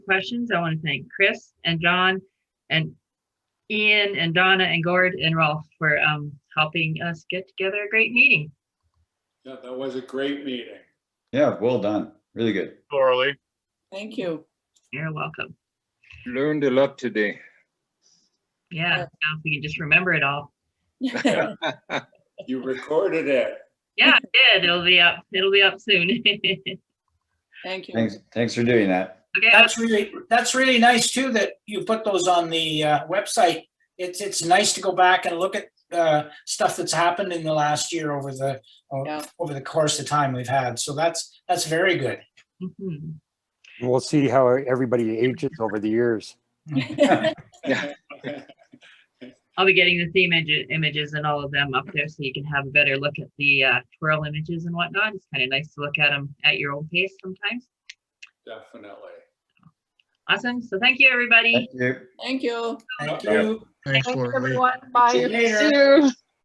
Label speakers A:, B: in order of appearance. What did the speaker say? A: questions. I want to thank Chris and John and Ian and Donna and Gord and Rolf for um, helping us get together a great meeting.
B: Yeah, that was a great meeting.
C: Yeah, well done. Really good.
D: Orally.
E: Thank you.
A: You're welcome.
F: Learned a lot today.
A: Yeah,
E: Yeah.
A: now if we can just remember it all.
B: You recorded it.
A: Yeah, I did. It'll be up. It'll be up soon. okay.
E: Thank you.
C: Thanks, thanks for doing that.
G: That's really, that's really nice too, that you put those on the uh, website. It's, it's nice to go back and look at uh, stuff that's happened in the last year over the, o-
E: Yeah.
G: over the course of time we've had. So that's, that's very good.
A: Mhm.
H: We'll see how everybody ages over the years.
A: I'll be getting the theme image- images and all of them up there so you can have a better look at the uh, twirl images and whatnot. It's kind of nice to look at them at your own pace sometimes.
B: Definitely.
A: Awesome. So thank you, everybody.
C: Thank you.
E: Thank you.
G: Thank
B: Yeah.
G: you.
I: Thanks,
J: Thanks,
I: Lori.
J: everyone. Bye.
G: See you later.
J: Sue.